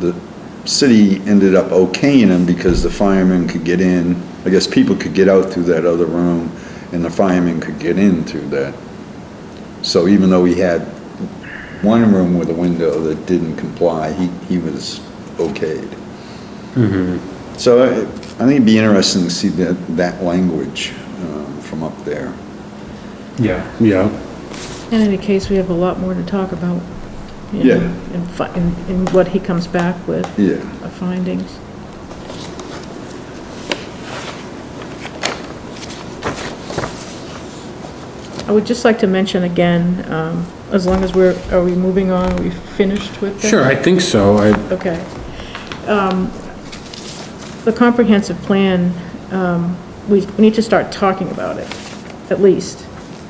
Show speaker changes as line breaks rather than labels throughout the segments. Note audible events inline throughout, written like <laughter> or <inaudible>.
the city ended up okaying them because the firemen could get in, I guess people could get out through that other room, and the firemen could get in through that. So even though he had one room with a window that didn't comply, he, he was okayed. So I I think it'd be interesting to see that, that language um, from up there.
Yeah.
Yeah,
In any case, we have a lot more to talk about. you
Yeah.
know, And, fi- and and what he comes back with,
Yeah.
uh, findings. I would just like to mention again, um, as long as we're, are we moving on, are we finished with this?
sure, I think so. I,
Okay. Um, The comprehensive plan, um, we we need to start talking about it, at least,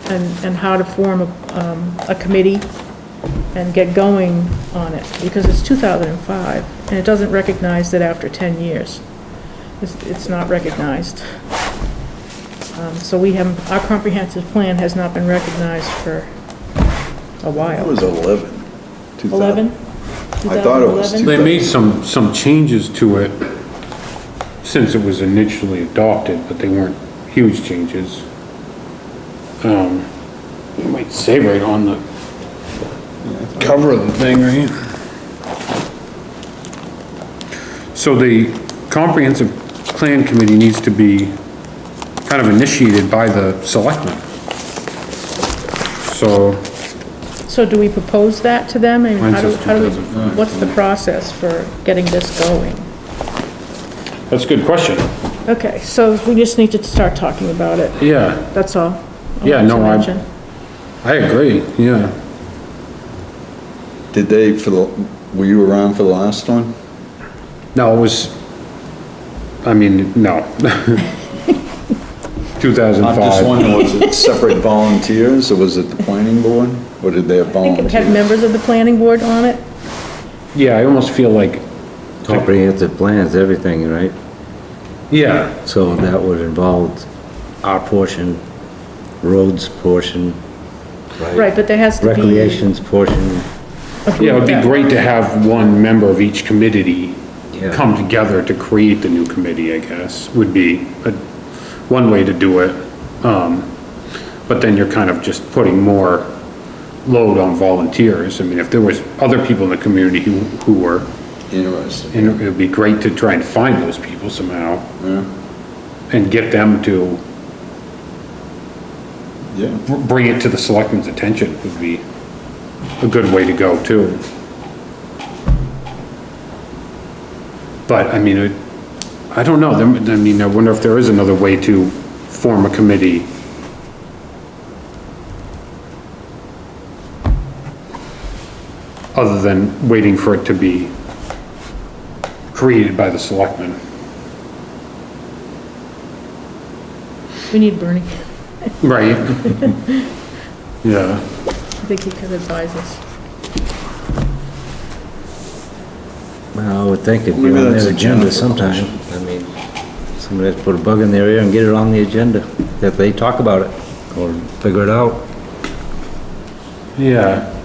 and, and how to form a, um, a committee and get going on it, because it's 2005, and it doesn't recognize that after 10 years. It's, it's not recognized. Um, So we have, our comprehensive plan has not been recognized for
That
a while.
was 11. 2000.
11?
I thought it was
2011?
they made some, some changes to it since it was initially adopted, but they weren't huge changes. Um, it might say right on the cover of the thing, right? So the comprehensive plan committee needs to be kind of initiated by the selectmen. So.
So do we propose that to them? And
Mine
how do,
says
how do we,
2005.
what's the process for getting this going?
That's a good question.
Okay, so we just need to start talking about it,
Yeah,
that's all. I
Yeah,
wanted to
no, I-
mention.
I agree, yeah.
Did they, for the, were you around for the last one?
No, it was, I mean, no. <laughs> 2005.
I'm just wondering, was it separate volunteers, or was it the planning board? Or did they have
I think it had
volunteers?
members of the planning board on it,
Yeah, I almost feel like,
Comprehensive plans, everything, right?
yeah,
So that would involve our portion, roads portion,
right, but there has to be.
recreations portion.
yeah, it'd be great to have one member of each committee
Yeah.
come together to create the new committee, I guess, would be a, one way to do it. Um, but then you're kind of just putting more load on volunteers. I mean, if there was other people in the community who, who were
Interesting.
And it would be great to try and find those people somehow. And get them to
Yeah,
br- bring it to the selectmen's attention would be a good way to go too. But I mean, it- I don't know, There- I mean, I wonder if there is another way to form a committee. Other than waiting for it to be created by the selectmen.
We need Bernie,
Right. Yeah.
I think he could advise us.
Well, I would think it'd be
Maybe
on
that's a
their
Jennifer
agenda sometime. I mean, somebody has to put a bug in their ear and get it on the agenda, that they talk about it or figure it out.
Yeah.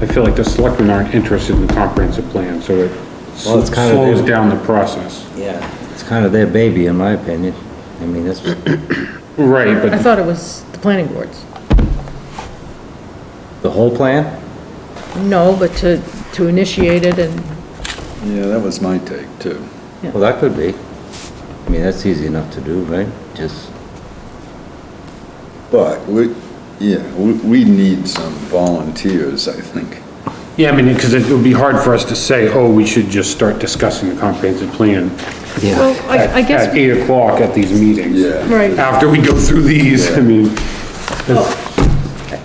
I feel like the selectmen aren't interested in the comprehensive plan, so it
Well, it's kind of-
slows down the process.
Yeah. It's kind of their baby, in my opinion. I mean, that's,
Right,
I
but
thought it was the planning boards.
the whole plan?
No, but to, to initiate it and,
yeah, that was my take, too.
Well, that could be. I mean, that's easy enough to do, right? Just,
But we, yeah, we, we need some volunteers, I think.
yeah, I mean, because it would be hard for us to say, oh, we should just start discussing the comprehensive plan
well,
at
I, I guess.
at eight o'clock at these meetings.
Yeah.
Right.
After we go through these, I mean,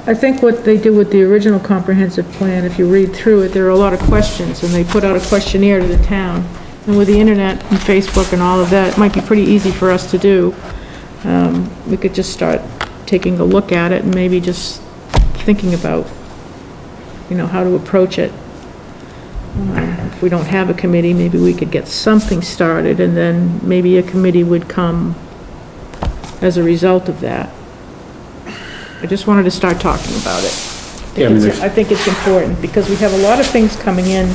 I think what they did with the original comprehensive plan, if you read through it, there are a lot of questions, and they put out a questionnaire to the town. And with the internet and Facebook and all of that, it might be pretty easy for us to do. Um, We could just start taking a look at it and maybe just thinking about, you know, how to approach it. Um, If we don't have a committee, maybe we could get something started, and then maybe a committee would come as a result of that. I just wanted to start talking about it.
Yeah, I
think
mean,
it's-
there's-
I think it's important, because we have a lot of things coming in